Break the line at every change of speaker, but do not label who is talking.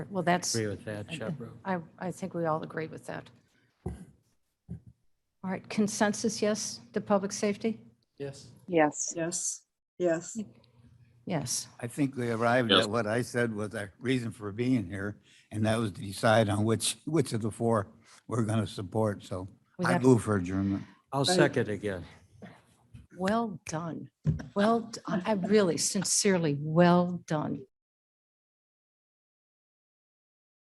Well, that's,
Agree with that, Chaperone.
I, I think we all agree with that. All right, consensus, yes, to public safety?
Yes.
Yes.
Yes, yes.
Yes.
I think we arrived
Yes.
at what I said was our reason for being here, and that was to decide on which, which of the four we're going to support, so
We
I
have-
move for adjournment.
I'll second again.
Well done. Well, d- I I really sincerely, well done.